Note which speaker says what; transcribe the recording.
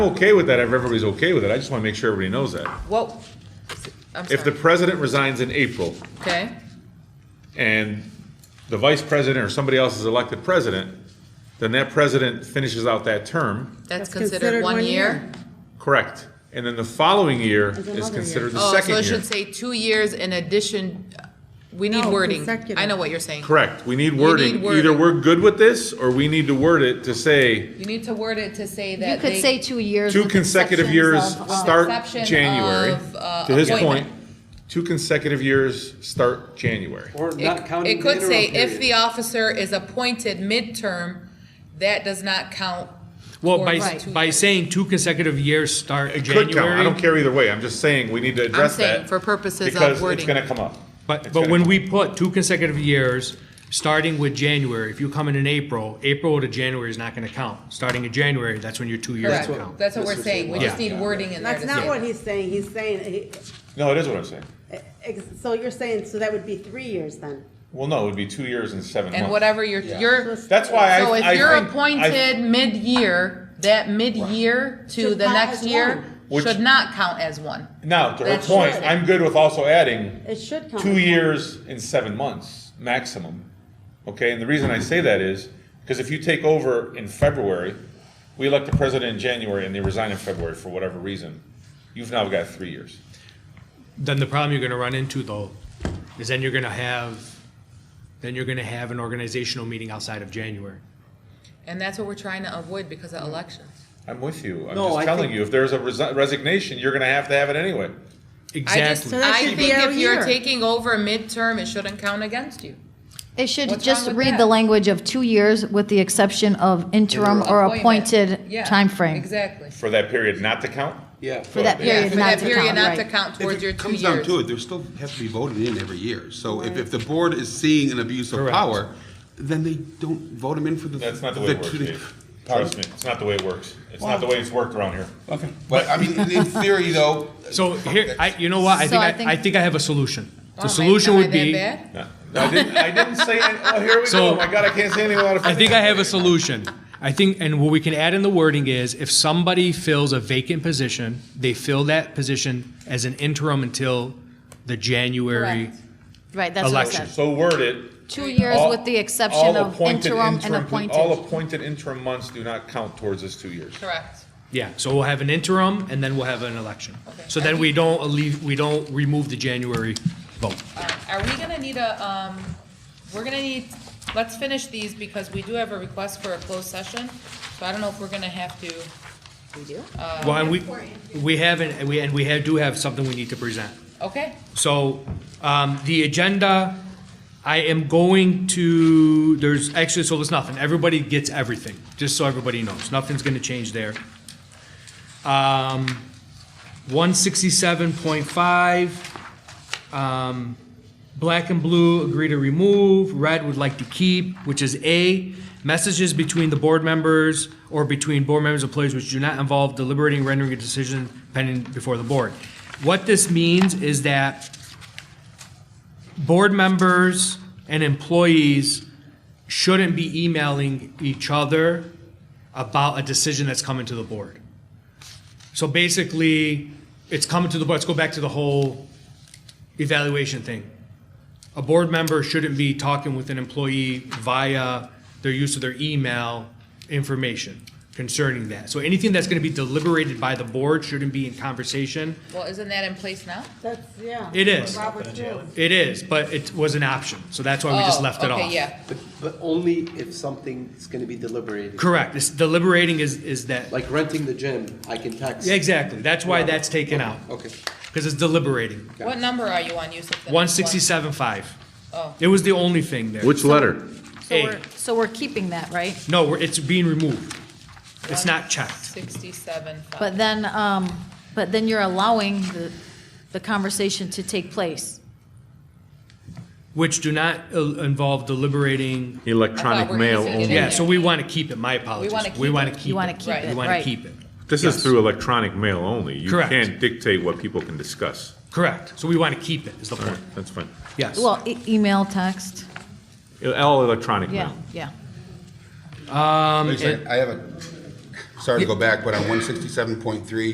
Speaker 1: Okay with that, if everybody's okay with it, I just wanna make sure everybody knows that.
Speaker 2: Well, I'm
Speaker 1: If the
Speaker 2: sorry,
Speaker 1: president resigns in April
Speaker 2: okay?
Speaker 1: and the vice president or somebody else is elected president, then that president finishes out that term,
Speaker 2: That's considered one year?
Speaker 1: correct? And then the following year is
Speaker 3: another
Speaker 1: considered the
Speaker 2: Oh, so
Speaker 1: second
Speaker 2: it
Speaker 1: year.
Speaker 2: should say two years in addition, we need
Speaker 3: No,
Speaker 2: wording. I
Speaker 3: consecutive.
Speaker 2: know what you're saying.
Speaker 1: Correct, we need wording, either
Speaker 2: wording.
Speaker 1: we're good with this, or we need to word it to say,
Speaker 2: You need to word it to say
Speaker 4: You
Speaker 2: that
Speaker 4: could
Speaker 2: they-
Speaker 4: say two years.
Speaker 1: two
Speaker 4: with
Speaker 1: consecutive
Speaker 4: exceptions
Speaker 1: years
Speaker 4: of, uh,
Speaker 1: start
Speaker 2: exception
Speaker 1: January.
Speaker 2: of, uh,
Speaker 1: To his point,
Speaker 2: appointment.
Speaker 1: two consecutive years start January.
Speaker 5: Or not
Speaker 2: It
Speaker 5: counting
Speaker 2: it
Speaker 5: the interim
Speaker 2: could say, if the
Speaker 5: period.
Speaker 2: officer is appointed midterm, that does not count.
Speaker 6: Well, by,
Speaker 2: towards two
Speaker 6: by
Speaker 2: years.
Speaker 6: saying two consecutive years start uh,
Speaker 1: It could count. I don't
Speaker 6: January.
Speaker 1: care either way. I'm just saying we need to address
Speaker 2: saying
Speaker 1: that.
Speaker 2: for purposes of
Speaker 1: Because it's
Speaker 2: wording.
Speaker 1: gonna come up.
Speaker 6: But,
Speaker 1: It's
Speaker 6: but
Speaker 1: gonna
Speaker 6: when
Speaker 1: come
Speaker 6: we put two consecutive years, starting with January, if you come in in April, April to January is not gonna count. Starting in January, that's when your two years
Speaker 2: Correct,
Speaker 6: count.
Speaker 2: that's what we're saying, we just
Speaker 6: Yeah.
Speaker 2: need wording in there
Speaker 3: That's
Speaker 2: to
Speaker 3: not
Speaker 2: say.
Speaker 3: what
Speaker 2: that.
Speaker 3: he's saying, he's saying,
Speaker 1: up. No, it is what I'm saying.
Speaker 3: eh, ex- so you're saying, so that would be three years then?
Speaker 1: Well, no, it would be two years and seven months.
Speaker 2: And whatever you're, you're, so
Speaker 1: That's why I, I think.
Speaker 2: if you're
Speaker 1: I-
Speaker 2: appointed mid-year, that mid-year to
Speaker 3: Should
Speaker 2: the
Speaker 3: count
Speaker 2: next
Speaker 3: as
Speaker 2: year
Speaker 3: one.
Speaker 1: Which-
Speaker 2: should not count as one.
Speaker 1: Now, to her
Speaker 2: That's
Speaker 1: point,
Speaker 2: true.
Speaker 1: I'm good with also adding
Speaker 3: It should count.
Speaker 1: two years and seven months maximum. Okay, and the reason I say that is because if you take over in February, we elect the president in January and they resign in February for whatever reason, you've now got three years.
Speaker 6: Then the problem you're gonna run into though, is then you're gonna have, then you're gonna have an organizational meeting outside of January.
Speaker 2: And that's what we're trying to avoid because of elections.
Speaker 1: I'm with you. I'm
Speaker 5: No,
Speaker 1: just
Speaker 5: I
Speaker 1: telling
Speaker 5: think-
Speaker 1: you, if there's a resi- resignation, you're going to have to have it anyway.
Speaker 2: I just,
Speaker 6: Exactly.
Speaker 3: that
Speaker 2: I
Speaker 3: should be
Speaker 2: think if
Speaker 3: every
Speaker 2: you're
Speaker 3: year.
Speaker 2: taking over midterm, it shouldn't count against you.
Speaker 4: It should
Speaker 2: What's
Speaker 4: just
Speaker 2: wrong with
Speaker 4: read
Speaker 2: that?
Speaker 4: the language of two years with the exception of interim or appointed
Speaker 2: Yeah,
Speaker 4: timeframe.
Speaker 2: Exactly.
Speaker 1: For that period not to count?
Speaker 5: Yeah.
Speaker 4: For that
Speaker 2: Yeah,
Speaker 4: period
Speaker 2: for
Speaker 4: not
Speaker 2: that
Speaker 4: to
Speaker 2: period
Speaker 4: count,
Speaker 2: not to
Speaker 4: right.
Speaker 2: count towards
Speaker 7: If
Speaker 2: your
Speaker 7: it
Speaker 2: two
Speaker 7: comes down
Speaker 2: years.
Speaker 7: to it, they still have to be voted in every year. So if, if the board is seeing an abuse of
Speaker 6: Correct.
Speaker 7: power, then they don't vote them in for the.
Speaker 1: That's not the way it works,
Speaker 7: two-
Speaker 1: Dave. Trust me, it's not the way it works. It's not the way it's worked around here.
Speaker 7: Okay, but I mean, in theory though.
Speaker 6: So here, I, you know what, I
Speaker 4: So
Speaker 6: think,
Speaker 4: I
Speaker 6: I- I
Speaker 4: think-
Speaker 6: think I have a solution.
Speaker 2: Oh, am
Speaker 6: The
Speaker 2: I-
Speaker 6: solution
Speaker 2: am I
Speaker 6: would
Speaker 2: that
Speaker 6: be.
Speaker 2: bad?
Speaker 1: No, I didn't, I didn't say, any- oh, here we go.
Speaker 6: So-
Speaker 1: Oh my God, I can't say anything without
Speaker 6: I
Speaker 1: offending.
Speaker 6: think I have a solution. I think, and what we can add in the wording is if somebody fills a vacant position, they fill that position as an interim until the January.
Speaker 2: Correct.
Speaker 4: Right, that's what I
Speaker 6: Election.
Speaker 4: said.
Speaker 1: So word it.
Speaker 4: Two years
Speaker 1: all-
Speaker 4: with the
Speaker 1: all
Speaker 4: exception of
Speaker 1: appointed
Speaker 4: interim and
Speaker 1: interim- All
Speaker 4: appointed.
Speaker 1: appointed interim months do not count towards this two years.
Speaker 2: Correct.
Speaker 6: Yeah, so we'll have an interim and then we'll have an election.
Speaker 2: Okay.
Speaker 6: So then we don't leave, we don't remove the January vote.
Speaker 2: All right. Are we gonna need a, um, we're gonna need, let's finish these because we do have a request for a closed session. So I don't know if we're gonna have to, Uh,
Speaker 6: Well, and we, we haven't, and we, and we have, do have something we need to present.
Speaker 2: okay,
Speaker 6: So, um, the agenda, I am going to, there's, actually, so there's nothing, everybody gets everything, just so everybody knows, nothing's gonna change there. Um, one sixty-seven point five, um, black and blue agree to remove, red would like to keep, which is A, messages between the board members or between board members and players which do not involve deliberating, rendering a decision pending before the board. What this means is that board members and employees shouldn't be emailing each other about a decision that's coming to the board. So basically, it's coming to the board, let's go back to the whole evaluation thing. A board member shouldn't be talking with an employee via their use of their email information concerning that. So anything that's gonna be deliberated by the board shouldn't be in conversation.
Speaker 2: well, isn't that in place now?
Speaker 3: That's, yeah.
Speaker 6: It is.
Speaker 3: Robert's rules.
Speaker 6: It is, but it was an option, so that's why we just
Speaker 2: Oh,
Speaker 6: left it off.
Speaker 2: Okay, yeah.
Speaker 5: But, but only if something's gonna be deliberated.
Speaker 6: Correct, it's deliberating is, is that,
Speaker 5: Like renting the gym, I can text.
Speaker 6: exactly, that's why that's taken out,
Speaker 5: Okay.
Speaker 6: because it's deliberating.
Speaker 2: What number are you on, Yusuf?
Speaker 6: One sixty-seven five.
Speaker 2: Oh.
Speaker 6: It was the only thing there.
Speaker 1: Which letter?
Speaker 4: So
Speaker 6: A.
Speaker 4: we're, so we're keeping that, right?
Speaker 6: No, we're- it's being removed. It's not checked.
Speaker 2: Sixty-seven.
Speaker 4: But then, um, but then you're allowing the, the conversation to take place.
Speaker 6: which do not uh, involve deliberating.
Speaker 2: I thought
Speaker 1: Electronic
Speaker 2: we're
Speaker 1: mail
Speaker 2: using it
Speaker 1: only.
Speaker 6: Yeah, so we want to keep it, my apologies.
Speaker 2: wanna keep
Speaker 6: We want to
Speaker 2: it.
Speaker 6: keep it.
Speaker 4: You wanna keep
Speaker 2: it,
Speaker 6: We want to
Speaker 4: right.
Speaker 6: keep it,
Speaker 1: This
Speaker 6: Yes.
Speaker 1: is through electronic mail only. You
Speaker 6: Correct.
Speaker 1: can't dictate what people can discuss.
Speaker 6: correct. So we want to keep it, is the
Speaker 1: All right,
Speaker 6: point,
Speaker 1: that's fine.
Speaker 6: yes.
Speaker 4: Well, e- email, text,
Speaker 1: All electronic
Speaker 4: yeah,
Speaker 1: mail.
Speaker 4: yeah.
Speaker 7: I have a sorry to go back, but on one sixty-seven point three,